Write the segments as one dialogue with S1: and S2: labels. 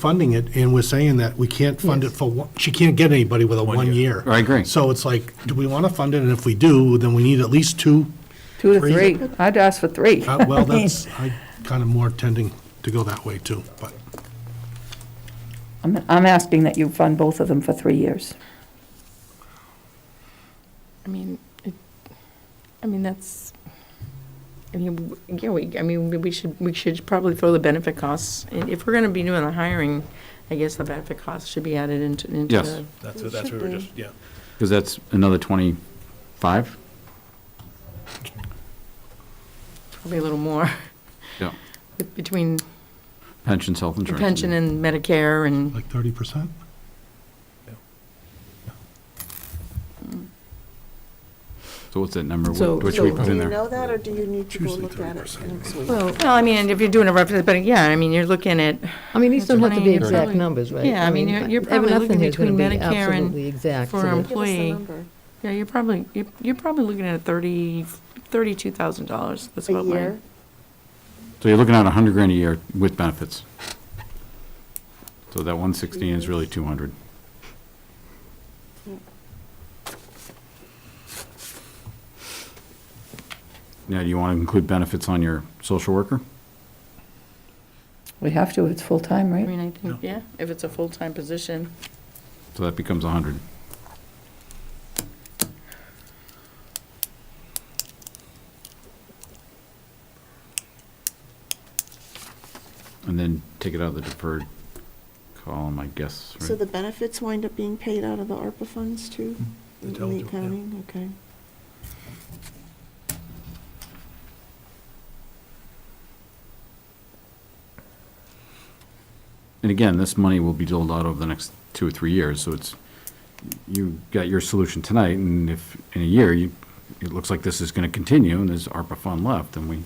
S1: funding it, and we're saying that we can't fund it for, one- she can't get anybody with a one year.
S2: I agree.
S1: So it's like, do we want to fund it? And if we do, then we need at least two.
S3: Two to
S1: Three.
S3: three. I'd ask for three.
S1: Uh, Well, that's, I kind of more tending to go that way too, but
S3: I'm, I'm asking that you fund both of them for three years.
S4: I mean, it, I mean, that's, I mean, w- yeah, we, I mean, we- we should, we should probably throw the benefit costs. i- If we're gonna be doing the hiring, I guess the benefit costs should be added into, into.
S2: Yes.
S4: the-
S1: that's, that's what we were just, yeah.
S2: Because that's another 25?
S4: Probably a little more
S2: Yeah.
S4: with- between
S2: Pensions, health
S4: the
S2: insurance.
S4: pension and Medicare and,
S1: Like thirty percent?
S2: So what's that number?
S4: So-
S2: Which
S4: so
S2: we put
S5: Do
S2: in
S5: you
S2: there?
S5: know that, or do you need to go
S1: Usually
S5: look at it
S1: 30%.
S5: next week?
S4: well, I mean, if you're doing a rough, but yeah, I mean, you're looking at,
S6: I mean, these don't have to be
S4: 20,
S6: exact
S4: probably-
S6: numbers, right?
S4: yeah, I mean, you're- you're probably
S6: nothing
S4: looking
S6: is gonna
S4: between
S6: be
S4: Medicare and
S6: absolutely exact.
S4: for um,
S6: so
S4: em-
S5: Give
S6: that-
S5: us
S4: employee
S5: the number.
S4: yeah, you're probably, you're, you're probably looking at thirty, thirty-two thousand dollars. That's
S5: A
S4: about my.
S5: year?
S2: So you're looking at 100 grand a year with benefits. So that 116 is really 200. Now, do you want to include benefits on your social worker?
S3: We have to, it's full-time,
S4: I
S3: right?
S4: mean, I think, yeah, if it's a full-time position.
S2: So that becomes 100. And then take it out of the deferred column, I guess. right?
S5: So the benefits wind up being paid out of the ARPA funds too?
S1: They
S5: In
S1: tell
S5: the
S1: you, Mm-hmm. yeah.
S5: accounting, okay.
S2: And again, this money will be doled out over the next two or three years, so it's, you got your solution tonight, and if, in a year, you, it looks like this is gonna continue, and there's ARPA fund left, and we.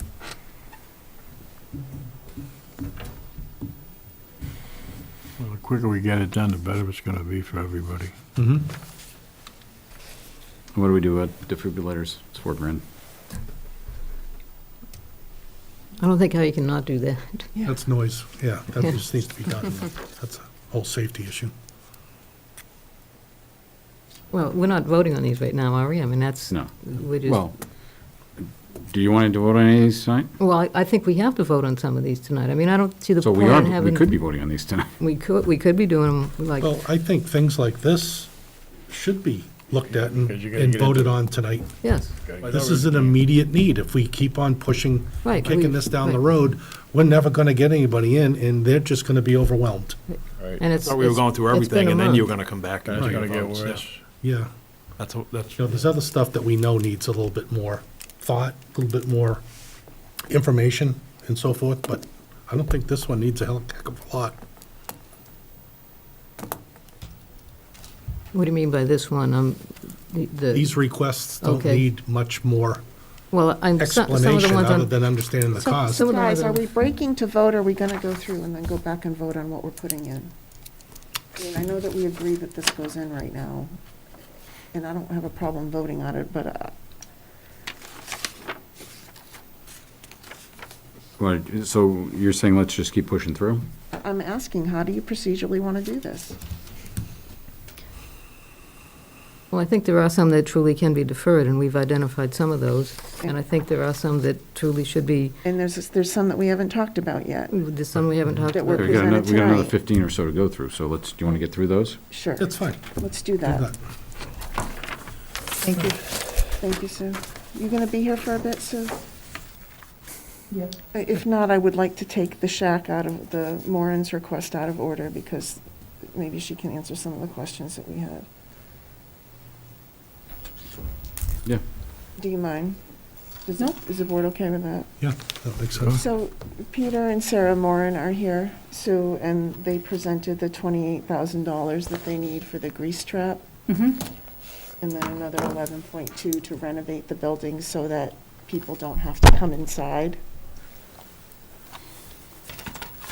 S7: Well, the quicker we get it done, the better it's going to be for everybody.
S1: Mm-hmm.
S2: What do we do with defibrillators? It's four grand.
S6: I don't think how you can not do that.
S1: That's noise, yeah, that just needs to be done. That's a whole safety issue.
S6: Well, we're not voting on these right now, are we? I mean, that's,
S2: No.
S6: we're just,
S2: Well, do you want to vote on any of these tonight?
S6: well, I- I think we have to vote on some of these tonight. I mean, I don't see the
S2: So we
S6: point in
S2: are, we
S6: having.
S2: could be voting on these tonight.
S6: We could, we could be doing them, like,
S1: Well, I think things like this should be looked at and
S7: Because you're gonna
S1: and
S7: get into-
S1: voted on tonight.
S6: yes,
S1: This is an immediate need. If we keep on pushing,
S6: Right,
S1: kicking
S6: we-
S1: this down the
S6: right.
S1: road, we're never going to get anybody in, and they're just going to be overwhelmed.
S6: and it's.
S8: Thought we were
S6: it's-
S8: going through
S6: it's been
S8: everything,
S6: a
S8: and then you were
S6: month.
S8: gonna come back. and
S7: It's
S8: take
S7: going to get
S8: votes, yeah.
S7: worse.
S1: Yeah.
S8: That's, what- that's,
S1: You know, there's other stuff that we know needs a little bit more thought, a little bit more information and so forth, but I don't think this one needs a hell heck of a lot.
S6: What do you mean by this one? Um, the- the,
S1: These requests don't
S6: Okay.
S1: need much more
S6: well, I'm, some some of the
S1: explanation
S6: ones
S1: other
S6: on,
S1: than understanding the
S6: Some-
S1: cost.
S6: some- Some of the
S5: Guys, are
S6: ones
S5: we
S6: on,
S5: breaking to vote, or are we gonna go through and then go back and vote on what we're putting in? I mean, I know that we agree that this goes in right now, and I don't have a problem voting on it, but uh,
S2: Well, So you're saying let's just keep pushing through?
S5: I'm asking, how do you procedurally wanna do this?
S6: well, I think there are some that truly can be deferred, and we've identified some of those. And I think there are some that truly should be,
S5: And there's, there's some that we haven't talked about yet.
S6: there's some we haven't talked
S5: That
S6: about.
S5: we're
S2: We got another,
S5: presented
S2: we got another
S5: tonight.
S2: fifteen or so to go through, so let's, do you want to get through those?
S5: Sure,
S1: It's fine.
S5: let's do
S1: Do
S5: that.
S1: that.
S6: Thank you.
S5: Thank you, Sue. You gonna be here for a bit, Sue? Uh,
S3: Yeah.
S5: If not, I would like to take the shack out of, the Moran's request out of order, because maybe she can answer some of the questions that we had.
S2: Yeah.
S5: Do you mind? Does- Is the board okay with that?
S1: Yeah, that makes sense.
S5: So Peter and Sarah Moran are here, Sue, and they presented the twenty-eight thousand dollars that they need for the grease trap. And then another eleven point two to renovate the building so that people don't have to come inside.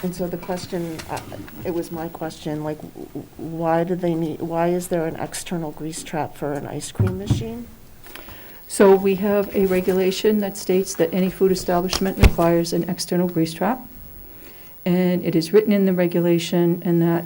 S5: And so the question, uh, it was my question, like, w- w- why do they need, why is there an external grease trap for an ice cream machine?
S3: So we have a regulation that states that any food establishment requires an external grease trap. And it is written in the regulation and that